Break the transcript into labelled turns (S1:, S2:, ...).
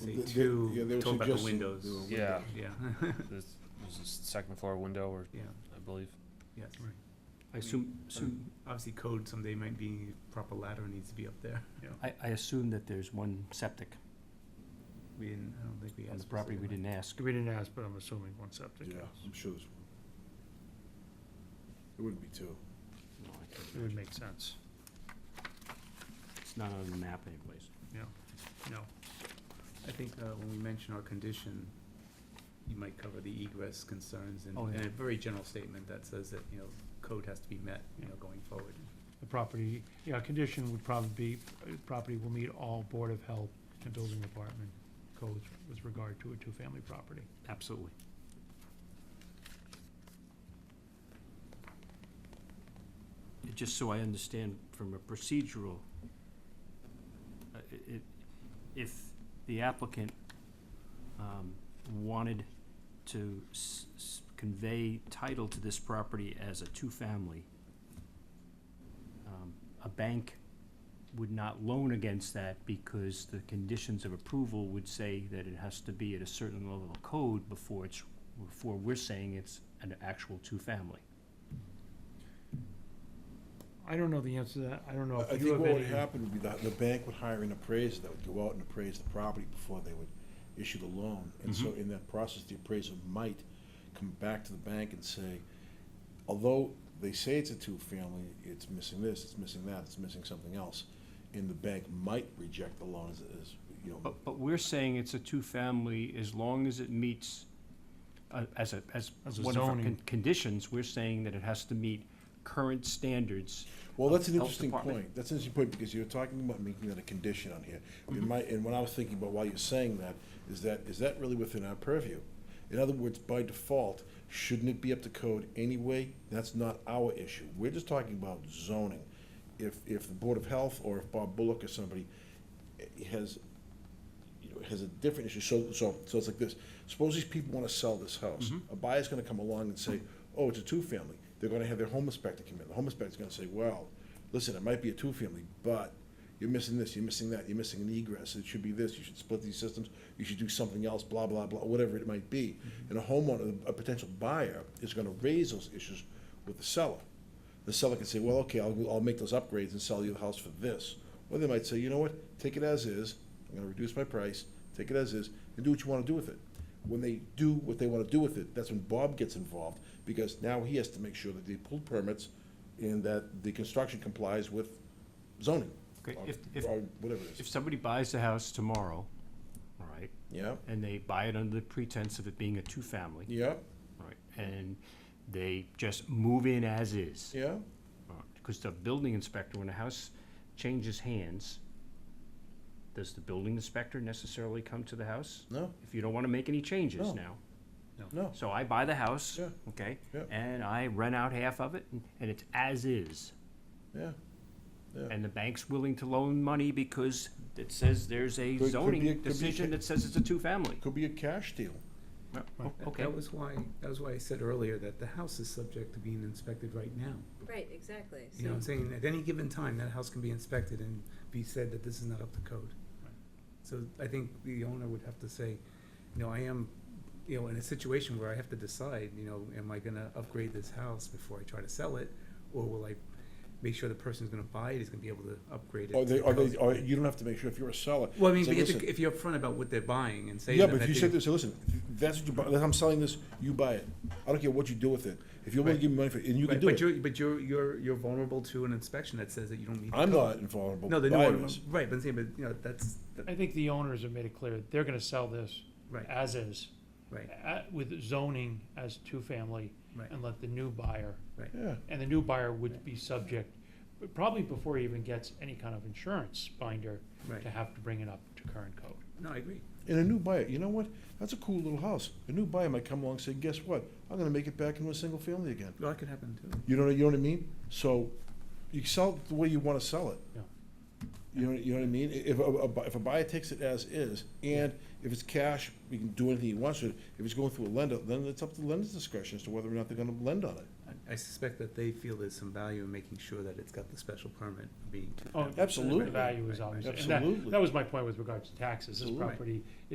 S1: Say
S2: Th- th-
S1: two,
S2: yeah, they were
S1: talking about the
S2: suggesting
S1: windows.
S2: there were
S3: Yeah,
S1: Yeah,
S3: there's, there's a second floor window or,
S1: yeah,
S3: I believe.
S1: yeah, right.
S4: I assume, assume,
S1: Obviously, code someday might be, proper ladder needs to be up there.
S5: Mm.
S4: I, I assume that there's one septic
S1: We didn't, I don't think we asked.
S4: on the property, we
S1: specifically.
S4: didn't ask.
S5: We didn't ask, but I'm assuming one septic.
S2: Yeah, I'm sure there's one. It wouldn't be two.
S4: No, I can't
S5: It would make sense,
S4: It's not on the map anyways.
S5: you know.
S1: I think uh, when we mention our condition, you might cover the egress concerns and
S4: Oh, yeah.
S1: and a very general statement that says that, you know, code has to be met, you know, going forward.
S5: The property, yeah, condition would probably be, uh, property will meet all Board of Health and Building Department codes with regard to a two-family property.
S4: Absolutely. It- Just so I understand from a procedural, uh, i- i- if the applicant um, wanted to s- s- convey title to this property as a two-family, um, a bank would not loan against that because the conditions of approval would say that it has to be at a certain level of code before it's, before we're saying it's an actual two-family.
S5: I don't know the answer to that, I don't
S2: I
S5: know
S2: I
S5: if you
S2: think
S5: have
S2: what would
S5: any.
S2: happen would be that the bank would hire an appraiser that would go out and appraise the property before they would issue the loan. And so
S5: Mm-hmm.
S2: in that process, the appraiser might come back to the bank and say, although they say it's a two-family, it's missing this, it's missing that, it's missing something else. And the bank might reject the loan as, as, you know,
S4: But, but we're saying it's a two-family as long as it meets, uh, as a, as
S5: As a
S4: one of our
S5: zoning.
S4: con- conditions, we're saying that it has to meet current standards.
S2: Well, that's an
S4: Health
S2: interesting
S4: Department.
S2: point. That's an interesting point because you're talking about making that a condition on here. I
S4: Mm-hmm.
S2: mean, my, and what I was thinking about while you're saying that is that, is that really within our purview? In other words, by default, shouldn't it be up to code anyway? That's not our issue. We're just talking about zoning. If, if the Board of Health or if Bob Bullock or somebody eh, has, you know, has a different issue. So, so, so it's like this. Suppose these people wanna sell this house. A buyer's gonna come along and say, oh, it's a two-family. They're gonna have their home inspector come in. The home inspector's gonna say, well, listen, it might be a two-family, but you're missing this, you're missing that, you're missing an egress. It should be this, you should split these systems, you should do something else, blah, blah, blah, whatever it might be. And a homeowner, a potential buyer, is gonna raise those issues with the seller. The seller can say, well, okay, I'll, I'll make those upgrades and sell you the house for this. Or they might say, you know what, take it as is, I'm gonna reduce my price, take it as is, and do what you wanna do with it. When they do what they wanna do with it, that's when Bob gets involved, because now he has to make sure that they pulled permits and that the construction complies with zoning.
S4: Okay,
S2: or-
S4: if- if-
S2: Or whatever it
S4: If
S2: is,
S4: somebody buys the house tomorrow, all right,
S2: yeah,
S4: and they buy it under the pretense of it being a two-family,
S2: yeah,
S4: Right, and they just move in as is.
S2: yeah,
S4: Because the building inspector, when a house changes hands, does the building inspector necessarily come to the house?
S2: no,
S4: If you don't want to make any changes
S2: No.
S4: now.
S2: no,
S4: So I buy the house,
S2: Yeah.
S4: okay?
S2: Yeah.
S4: And I rent out half of it, and- and it's as is.
S2: yeah.
S4: And the bank's willing to loan money because it says there's
S2: Could-
S4: a
S2: could be a-
S4: zoning
S2: could be a
S4: decision
S2: ca-
S4: that says it's a two-family.
S2: Could be a cash deal,
S4: Uh,
S5: Right.
S1: That-
S4: Okay,
S1: That was why, that was why I said earlier that the house is subject to being inspected right now.
S6: Right, exactly,
S1: You know what
S6: so,
S1: I'm saying? At any given time, that house can be inspected and be said that this is not up to code.
S5: Right.
S1: So I think the owner would have to say, you know, I am, you know, in a situation where I have to decide, you know, am I gonna upgrade this house before I try to sell it? Or will I make sure the person's gonna buy it is gonna be able to upgrade it?
S2: or
S1: to
S2: they, or
S1: code?
S2: they, or you don't have to make sure if you're a seller.
S1: Well, I mean,
S2: say,
S1: but you have
S2: "Listen,
S1: to- if you're upfront about what they're buying and saying
S2: Yeah,
S1: that.
S2: but if
S1: that
S2: you
S1: they-
S2: said this, listen, that's what you buy, I'm selling this, you buy it. I don't care what you do with it. If you're willing to
S1: Right.
S2: give me money for it, and you can
S1: Right,
S2: do
S1: But
S2: it.
S1: you're, but you're, you're, you're vulnerable to an inspection that says that you don't meet. the
S2: I'm
S1: code.
S2: not invulnerable.
S1: No, the new
S2: buyer
S1: owner,
S2: is.
S1: right, but I'm saying, but, you know, that's, that-
S5: I think the owners have made it clear, they're gonna sell this
S1: right,
S5: as is,
S1: right,
S5: a- with zoning as two-family,
S1: Right.
S5: and let the new buyer
S2: Yeah,
S5: and the new buyer would be subject, but probably before he even gets any kind of insurance binder,
S1: right.
S5: to have to bring it up to current code.
S1: No, I agree.
S2: and a new buyer, you know what? That's a cool little house. A new buyer might come along and say, guess what? I'm gonna make it back into a single family again.
S1: Well, that could happen too.
S2: You know, you know what I mean? So you sell it the way you wanna sell it.
S5: Yeah.
S2: You know, you know what I mean? I- If a, a bu- if a buyer takes it as is, and if it's cash, you can do anything you want to it. If it's going through a lender, then it's up to the lender's discretion as to whether or not they're gonna lend on it.
S1: I- I suspect that they feel there's some value in making sure that it's got the special permit being.
S5: Oh,
S2: Absolutely.
S5: The value
S1: Right,
S5: is
S1: right,
S5: obviously,
S1: right.
S5: and that,
S2: Absolutely.
S5: that was my point with regards to taxes, this
S2: Absolutely.
S5: property